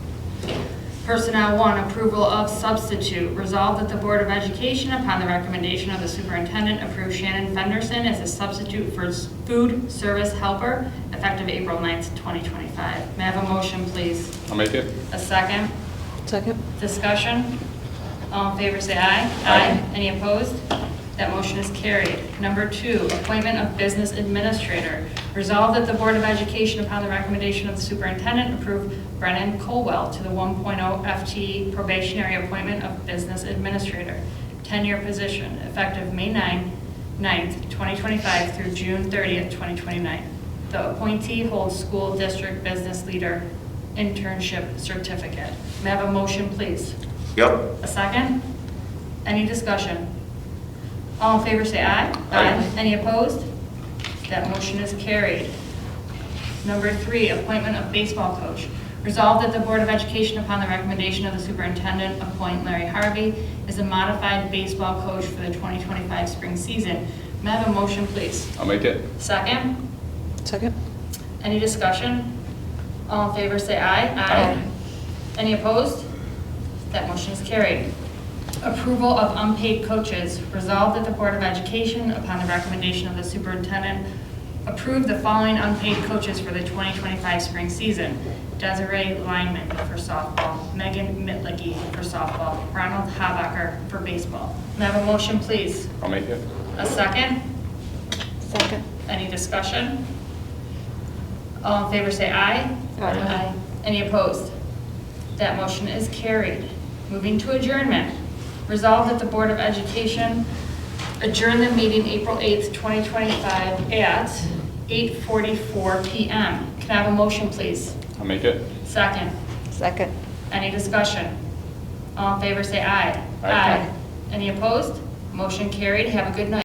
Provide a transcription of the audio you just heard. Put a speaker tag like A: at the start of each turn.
A: Personnel one, approval of substitute. Resolved that the Board of Education, upon the recommendation of the superintendent, approve Shannon Fenderson as a substitute for s- food service helper effective April 9th, 2025. May I have a motion, please?
B: I'll make it.
A: A second?
C: Second?
A: Discussion? All in favor, say aye.
B: Aye.
A: Any opposed? That motion is carried. Number two, appointment of business administrator. Resolved that the Board of Education, upon the recommendation of the superintendent, approve Brennan Colwell to the 1.0 FTE probationary appointment of business administrator, 10-year position, effective May 9, 9th, 2025 through June 30th, 2029. The appointee holds school district business leader internship certificate. May I have a motion, please?
D: Yep.
A: A second? Any discussion? All in favor, say aye.
B: Aye.
A: Any opposed? That motion is carried. Number three, appointment of baseball coach. Resolved that the Board of Education, upon the recommendation of the superintendent, appoint Larry Harvey as a modified baseball coach for the 2025 spring season. May I have a motion, please?
B: I'll make it.
A: Second?
C: Second?
A: Any discussion? All in favor, say aye.
B: Aye.
A: Any opposed? That motion is carried. Approval of unpaid coaches. Resolved at the Board of Education, upon the recommendation of the superintendent, approve the following unpaid coaches for the 2025 spring season. Desiree Lyman for softball, Megan Mitlicky for softball, Ronald Habacher for baseball. May I have a motion, please?
B: I'll make it.
A: A second?
C: Second.
A: Any discussion? All in favor say aye.
C: Aye.
A: Any opposed? That motion is carried. Moving to adjournment. Resolved that the Board of Education adjourn the meeting April 8th, 2025 at 8:44 PM. Can I have a motion, please?
B: I'll make it.
A: Second.
C: Second.
A: Any discussion? All in favor say aye.
B: Aye.
A: Any opposed? Motion carried. Have a good night.